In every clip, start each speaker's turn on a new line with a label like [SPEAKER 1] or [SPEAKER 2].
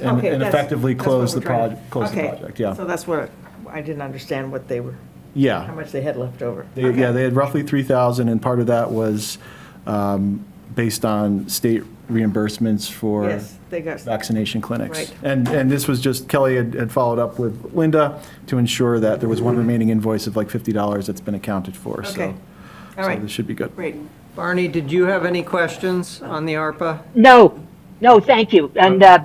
[SPEAKER 1] and
[SPEAKER 2] Okay,
[SPEAKER 1] and
[SPEAKER 2] that's-
[SPEAKER 1] effectively
[SPEAKER 2] that's what
[SPEAKER 1] close the
[SPEAKER 2] we're trying-
[SPEAKER 1] project, close the
[SPEAKER 2] okay.
[SPEAKER 1] project, yeah.
[SPEAKER 2] So that's what, I didn't understand what they were, how
[SPEAKER 1] Yeah.
[SPEAKER 2] much they had left over.
[SPEAKER 1] They- Yeah, they had roughly 3,000, and part of that was um, based on state reimbursements for
[SPEAKER 2] Yes, they got,
[SPEAKER 1] vaccination clinics.
[SPEAKER 2] Right.
[SPEAKER 1] And, and this was just, Kelly had, had followed up with Linda to ensure that there was one remaining invoice of like $50 that's been accounted for, so.
[SPEAKER 2] Mm-hmm. okay. All right,
[SPEAKER 1] So this should be good.
[SPEAKER 2] great.
[SPEAKER 3] Barney, did you have any questions on the ARPA?
[SPEAKER 4] No, no, thank you, and, uh,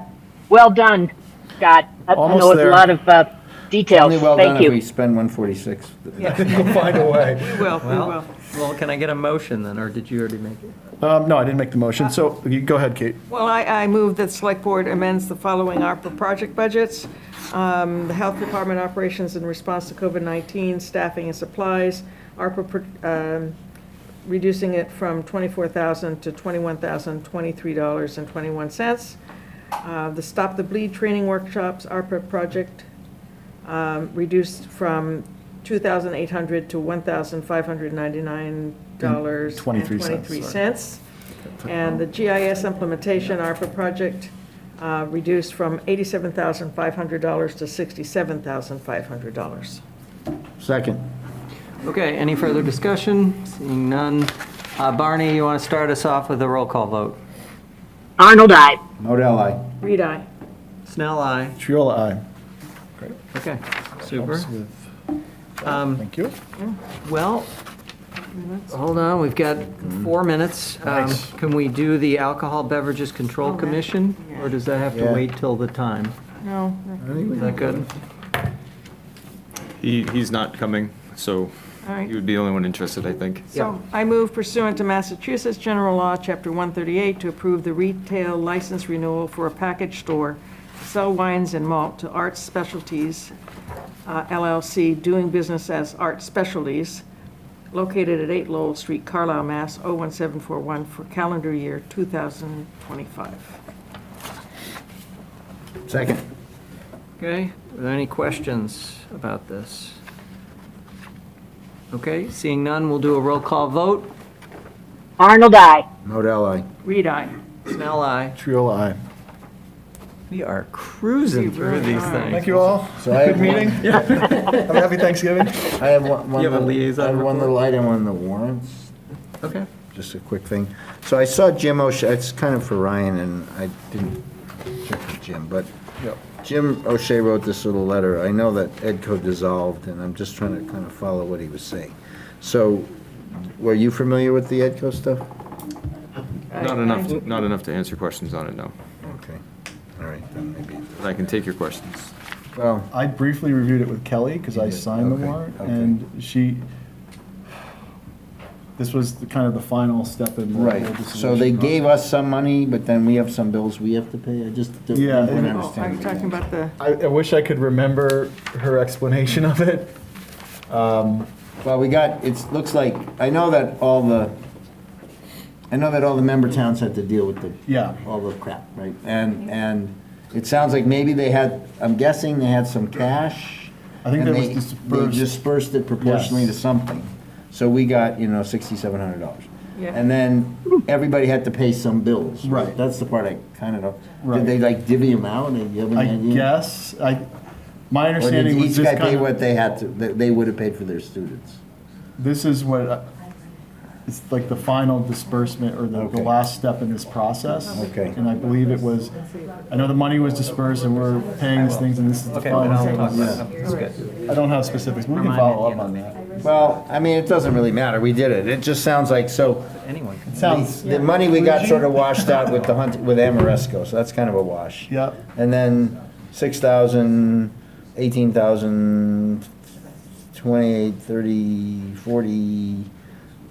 [SPEAKER 4] well done, Scott. I-
[SPEAKER 1] Almost
[SPEAKER 4] I know
[SPEAKER 1] there.
[SPEAKER 4] a lot of, uh, details,
[SPEAKER 5] Only well done
[SPEAKER 4] thank
[SPEAKER 5] if we
[SPEAKER 4] you.
[SPEAKER 5] spend 146.
[SPEAKER 1] We'll find a way.
[SPEAKER 2] We will, we will.
[SPEAKER 3] Well, can I get a motion then, or did you already make it?
[SPEAKER 1] Um, No, I didn't make the motion, so
[SPEAKER 2] Uh-huh.
[SPEAKER 1] you go ahead, Kate.
[SPEAKER 2] Well, I, I move that Select Board amends the following ARPA project budgets. Um, The Health Department Operations in Response to COVID-19, Staffing and Supplies, ARPA, pro- um, reducing it from 24000 to $21,023.21. Uh, The Stop the Bleed Training Workshops, ARPA project, um, reduced from 2800 to $1,599.
[SPEAKER 1] Twenty-three cents, sorry.
[SPEAKER 2] cents. And the GIS implementation ARPA project uh, reduced from $87,500 to $67,500.
[SPEAKER 5] Second.
[SPEAKER 3] Okay, any further discussion? Seeing none. Uh, Barney, you want to start us off with a roll call vote?
[SPEAKER 4] Arnold, I.
[SPEAKER 5] Modell, aye.
[SPEAKER 2] Read aye.
[SPEAKER 3] Snell, aye.
[SPEAKER 1] Triola, aye.
[SPEAKER 3] Okay, super.
[SPEAKER 1] Helps with-
[SPEAKER 3] Um,
[SPEAKER 1] Thank you.
[SPEAKER 3] Well, hold on, we've got four minutes. Um,
[SPEAKER 1] Nice.
[SPEAKER 3] Can we do the Alcohol Beverages Control
[SPEAKER 2] Okay.
[SPEAKER 3] Commission? Or does that have to
[SPEAKER 5] Yeah.
[SPEAKER 3] wait till the time?
[SPEAKER 2] No,
[SPEAKER 3] Is that good?
[SPEAKER 6] He, he's not coming, so
[SPEAKER 2] all right.
[SPEAKER 6] he would be the only one interested, I think.
[SPEAKER 2] So I move pursuant to Massachusetts General Law, Chapter 138, to approve the retail license renewal for a package store to sell wines and malt to Arts Specialties uh, LLC, doing business as Art Specialties, located at 8 Lowell Street, Carlisle, Mass. 01741, for calendar year 2025.
[SPEAKER 5] Second.
[SPEAKER 3] Okay, are there any questions about this? Okay, seeing none, we'll do a roll call vote.
[SPEAKER 4] Arnold, I.
[SPEAKER 5] Modell, aye.
[SPEAKER 2] Read aye.
[SPEAKER 3] Snell, aye.
[SPEAKER 1] Triola, aye.
[SPEAKER 3] We are cruising
[SPEAKER 2] We
[SPEAKER 3] through
[SPEAKER 2] really
[SPEAKER 3] these
[SPEAKER 2] are.
[SPEAKER 3] things.
[SPEAKER 1] Thank you all.
[SPEAKER 5] So I have
[SPEAKER 1] Good meeting. Have a happy Thanksgiving.
[SPEAKER 5] I have one, one
[SPEAKER 3] You have a
[SPEAKER 5] little-
[SPEAKER 3] liaison
[SPEAKER 5] I have one
[SPEAKER 3] report?
[SPEAKER 5] little item on the warrants,
[SPEAKER 3] Okay.
[SPEAKER 5] just a quick thing. So I saw Jim O'Shea, it's kind of for Ryan, and I didn't check with Jim, but
[SPEAKER 1] Yep.
[SPEAKER 5] Jim O'Shea wrote this little letter. I know that Edco dissolved, and I'm just trying to kind of follow what he was saying. So, were you familiar with the Edco stuff?
[SPEAKER 6] Not enough, not enough to answer questions on it, no.
[SPEAKER 5] Okay, all right, then maybe,
[SPEAKER 6] But I can take your questions.
[SPEAKER 5] well,
[SPEAKER 1] I briefly reviewed it with Kelly because I
[SPEAKER 5] You did,
[SPEAKER 1] signed the
[SPEAKER 5] okay,
[SPEAKER 1] warrant,
[SPEAKER 5] okay.
[SPEAKER 1] and she, this was the kind of the final step in the whole
[SPEAKER 5] Right,
[SPEAKER 1] dissolution
[SPEAKER 5] so they
[SPEAKER 1] process.
[SPEAKER 5] gave us some money, but then we have some bills we have to pay, I just don't
[SPEAKER 1] Yeah,
[SPEAKER 5] don't
[SPEAKER 1] and-
[SPEAKER 2] Oh, Are
[SPEAKER 5] understand.
[SPEAKER 2] you talking about the,
[SPEAKER 1] I, I wish I could remember her explanation of it.
[SPEAKER 5] Well, we got, it's, looks like, I know that all the, I know that all the member towns had to deal with the.
[SPEAKER 1] Yeah.
[SPEAKER 5] All the crap, right, and, and it sounds like maybe they had, I'm guessing they had some cash.
[SPEAKER 1] I think
[SPEAKER 5] and
[SPEAKER 1] that was
[SPEAKER 5] they-
[SPEAKER 1] dispersed.
[SPEAKER 5] They dispersed it proportionally to
[SPEAKER 1] Yes.
[SPEAKER 5] something, so we got, you know, sixty-seven hundred dollars.
[SPEAKER 2] Yeah.
[SPEAKER 5] And then everybody had to pay some bills.
[SPEAKER 1] Right.
[SPEAKER 5] That's the part I kind of know.
[SPEAKER 1] Right.
[SPEAKER 5] Did they like divvy them out, and you have an
[SPEAKER 1] I
[SPEAKER 5] idea?
[SPEAKER 1] guess, I, my
[SPEAKER 5] Or did
[SPEAKER 1] understanding was
[SPEAKER 5] each
[SPEAKER 1] this
[SPEAKER 5] guy pay
[SPEAKER 1] kind of,
[SPEAKER 5] what they had to, that they would have paid for their students?
[SPEAKER 1] this is what, I- it's like the final disbursement or the, the
[SPEAKER 5] Okay.
[SPEAKER 1] last step in this process.
[SPEAKER 5] Okay.
[SPEAKER 1] And I believe it was, I know the money was dispersed and we're paying these things, and this is the
[SPEAKER 3] Okay, but I'll
[SPEAKER 1] final.
[SPEAKER 3] talk
[SPEAKER 1] thing.
[SPEAKER 3] about it. That's good.
[SPEAKER 1] I don't have specifics, we can
[SPEAKER 3] Remind
[SPEAKER 1] follow
[SPEAKER 3] me
[SPEAKER 1] up
[SPEAKER 3] at
[SPEAKER 1] on
[SPEAKER 3] the
[SPEAKER 1] that.
[SPEAKER 5] Well, I mean, it doesn't really matter, we did it, it just sounds like, so,
[SPEAKER 3] Anyone can.
[SPEAKER 1] Sounds,
[SPEAKER 5] the money we got sort of washed out with the hunt, with Amoresco, so that's kind of a wash.
[SPEAKER 1] Yep.
[SPEAKER 5] And then six thousand, eighteen thousand, twenty-eight, thirty, forty,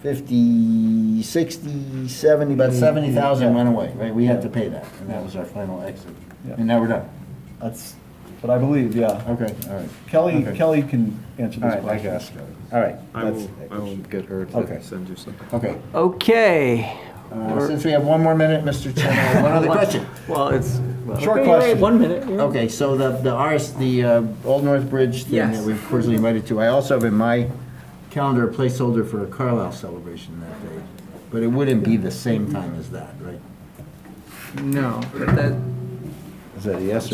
[SPEAKER 5] fifty, sixty, seventy, about seventy thousand went away, right, we had to pay that, and that was our final exit,
[SPEAKER 1] Yeah.
[SPEAKER 5] and now we're done,
[SPEAKER 1] that's what I believe, yeah.
[SPEAKER 5] okay, all right.
[SPEAKER 1] Kelly,
[SPEAKER 5] Okay.
[SPEAKER 1] Kelly can answer
[SPEAKER 5] All
[SPEAKER 1] this
[SPEAKER 5] right, I
[SPEAKER 1] question.
[SPEAKER 5] guess. All right.
[SPEAKER 6] I
[SPEAKER 5] that's-
[SPEAKER 6] will, I will get her
[SPEAKER 5] Okay.
[SPEAKER 6] to send you something.
[SPEAKER 5] Okay.
[SPEAKER 3] Okay.
[SPEAKER 5] Uh, Since we have one more minute, Mr. Chairman, one other question.
[SPEAKER 3] Well, it's. well,
[SPEAKER 1] Short
[SPEAKER 3] okay, all right,
[SPEAKER 1] question.
[SPEAKER 3] One minute. yeah.
[SPEAKER 5] Okay, so the, the RS, the uh, Old North Bridge thing that
[SPEAKER 3] Yes.
[SPEAKER 5] we've originally invited to, I also have in my calendar a placeholder for a Carlisle celebration that day, but it wouldn't be the same time as that, right?
[SPEAKER 3] No, but that,
[SPEAKER 5] Is that a yes or